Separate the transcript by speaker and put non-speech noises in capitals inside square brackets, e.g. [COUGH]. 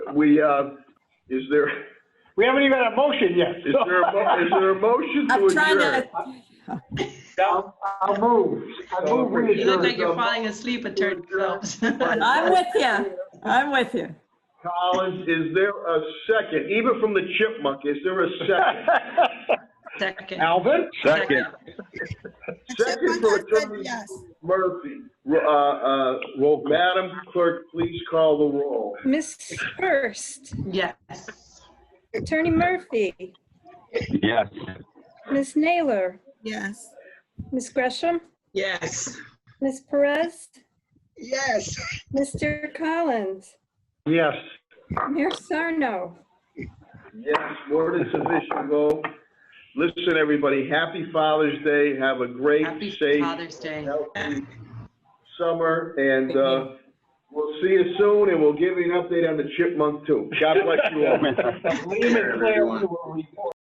Speaker 1: we, uh, is there, is
Speaker 2: We haven't even had a motion yet. so-
Speaker 1: there, a mo- is there a motion to
Speaker 3: I'm trying
Speaker 1: adjourn?
Speaker 3: to,
Speaker 2: I'll I'll move. I move we
Speaker 1: You
Speaker 4: You look like
Speaker 2: adjourn.
Speaker 4: you're falling asleep, it turns out. [LAUGHS]
Speaker 3: I'm with you. I'm with you.
Speaker 1: Collins, is there a second, even from the chipmunk, is there a
Speaker 2: [LAUGHS]
Speaker 1: second?
Speaker 4: Second.
Speaker 2: Alvin?
Speaker 5: Second.
Speaker 1: Second for Attorney Murphy. Uh, uh, Madam Clerk, please call the roll.
Speaker 6: Miss Hurst,
Speaker 4: Yes.
Speaker 6: Attorney Murphy,
Speaker 5: Yes.
Speaker 6: Miss Naylor,
Speaker 7: Yes.
Speaker 6: Miss Gresham,
Speaker 4: Yes.
Speaker 6: Miss Perez,
Speaker 7: Yes.
Speaker 6: Mr. Collins,
Speaker 2: Yes.
Speaker 6: Mayor Sarno.
Speaker 1: Yes, word is sufficient, go. Listen, everybody, happy Father's Day, have a great,
Speaker 4: Happy
Speaker 1: safe,
Speaker 4: Father's Day.
Speaker 1: healthy summer, and, uh, we'll see you soon, and we'll give you an update on the chipmunk too. God bless you all.
Speaker 2: Lehman Cleary will report.